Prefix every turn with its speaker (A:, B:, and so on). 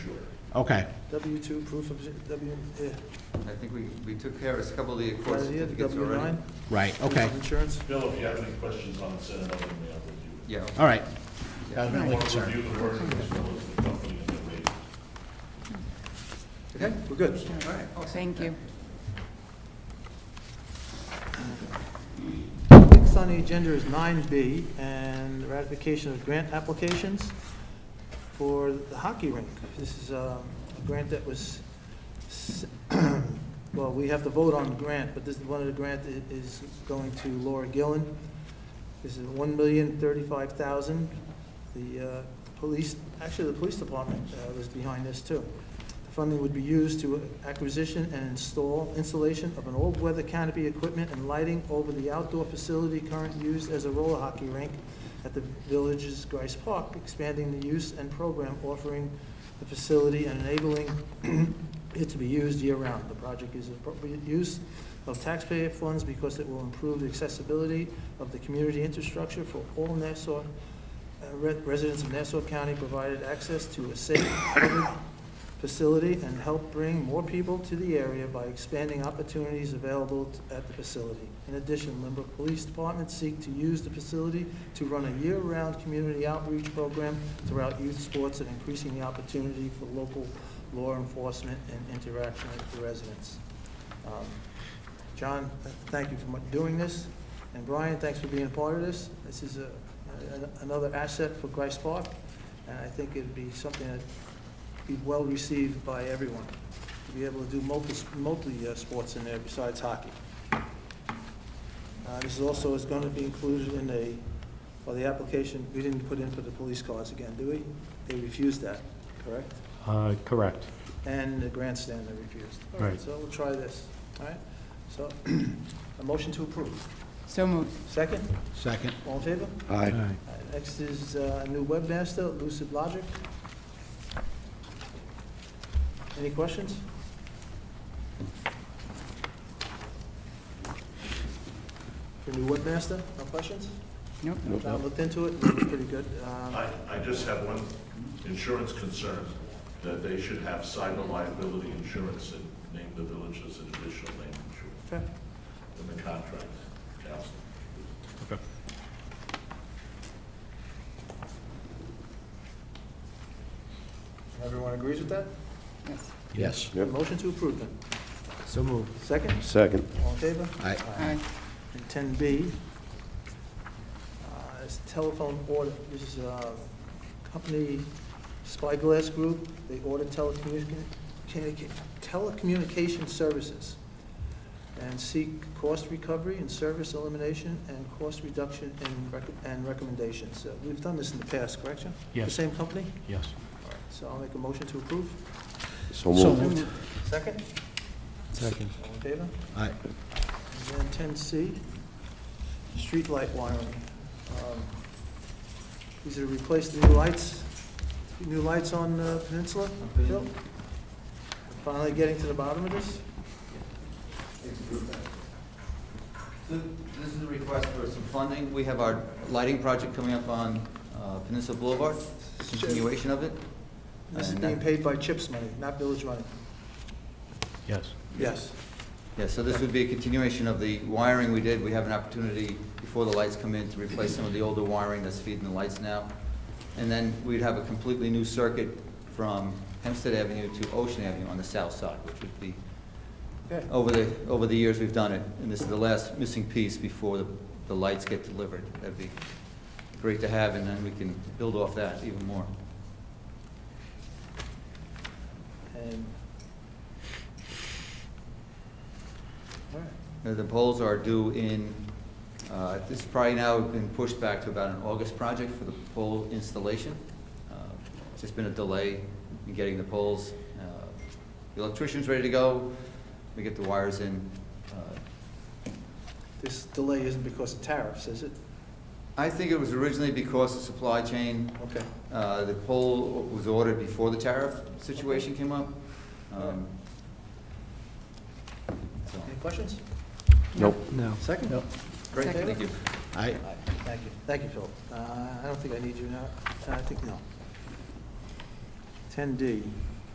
A: Okay,
B: W-2, proof of, W, yeah.
C: I think we, we took care of a couple of the court
B: Right here, the
C: certificates already.
B: W-9.
A: right, okay,
B: Insurance.
D: Bill, if you have any questions on it, send it over to me, I'll review it.
C: Yeah.
A: all right.
C: Yeah.
A: That was my only
D: I'll
A: concern.
D: review the wording as well as the company and the rate.
C: Okay, we're good. All right, awesome.
E: Thank you.
B: Next on the agenda is 9B, and ratification of grant applications for the hockey rink. This is um, a grant that was, s- well, we have to vote on the grant, but this, one of the grant i- is going to Laura Gillen. This is $1,035,000. The uh, police, actually, the police department uh, was behind this, too. The funding would be used to acquisition and install, installation of an all-weather canopy equipment and lighting over the outdoor facility currently used as a roller hockey rink at the village's Grice Park, expanding the use and program offering the facility and enabling it to be used year-round. The project is appropriate use of taxpayer funds because it will improve the accessibility of the community infrastructure for all Nassau, uh, re- residents of Nassau County, provided access to a safe, public facility and help bring more people to the area by expanding opportunities available t- at the facility. In addition, Lynbrook Police Department seek to use the facility to run a year-round community outreach program throughout youth sports and increasing the opportunity for local law enforcement and interaction with the residents. Um, John, th- thank you for mu- doing this, and Brian, thanks for being a part of this. This is a- a- another asset for Grice Park, and I think it'd be something that be well received by everyone, to be able to do multi, multi uh, sports in there besides hockey. Uh, This is also is going to be included in a, well, the application, we didn't put in for the police cars again, do we? They refused that, correct?
F: Uh, Correct.
B: And the grandstand they refused. All
F: Right.
B: So we'll try this, all right? So, a motion to approve.
E: So moved.
B: Second,
A: Second.
B: all in favor?
A: All right.
B: All right, Next is uh, new webmaster, Lucid Logic. Any questions? For new webmaster, no questions?
E: Nope.
B: John looked into it, it was pretty good. Um,
D: I, I just have one insurance concern, that they should have cyber liability insurance and name the village as an additional name insurance
B: okay.
D: in the contract, council.
B: Everyone agrees with that?
E: Yes.
A: Yes.
G: Yep.
B: Motion to approve then.
A: So moved.
B: Second,
G: Second.
B: all in favor?
A: Aye.
E: Aye.
B: And ten B, uh, is telephone order, this is a company, Spyglass Group, they order telecommunication, telecommunication services and seek cost recovery and service elimination and cost reduction and rec- and recommendations. Uh, We've done this in the past, correct, John? The
F: Yes.
B: same company?
F: Yes.
B: All right, So I'll make a motion to approve.
G: So
A: So
G: moved.
A: moved.
B: Second?
F: Second.
B: All in favor?
A: All right.
B: And then ten C, streetlight wiring. Um, These are replace the new lights, new lights on uh, Peninsula, Phil? Finally getting to the bottom of this?
C: So this is a request for some funding. We have our lighting project coming up on uh, Peninsula Boulevard, continuation of it.
B: This is
C: And, uh,
B: being paid by CHIPS money, not village money.
F: Yes.
B: Yes.
C: Yeah, so this would be a continuation of the wiring we did. We have an opportunity before the lights come in to replace some of the older wiring that's feeding the lights now. And then we'd have a completely new circuit from Hempstead Avenue to Ocean Avenue on the south side, which would be,
B: Okay.
C: over the, over the years, we've done it. And this is the last missing piece before the, the lights get delivered. That'd be great to have, and then we can build off that even more.
B: And. All right.
C: Uh, The polls are due in, uh, this is probably now been pushed back to about an August project for the pole installation. Uh, It's just been a delay in getting the poles. Uh, The electrician's ready to go, we get the wires in. Uh,
B: This delay isn't because of tariffs, is it?
C: I think it was originally because of supply chain.
B: Okay.
C: Uh, The pole was ordered before the tariff situation came up. Um, So,
B: Any questions?
G: Nope.
A: No.
B: Second?
A: Nope.
C: great,
E: Second.
C: thank you.
A: All right.
B: All right, Thank you, thank you, Phil. Uh, I don't think I need you now, I think, no. 10D,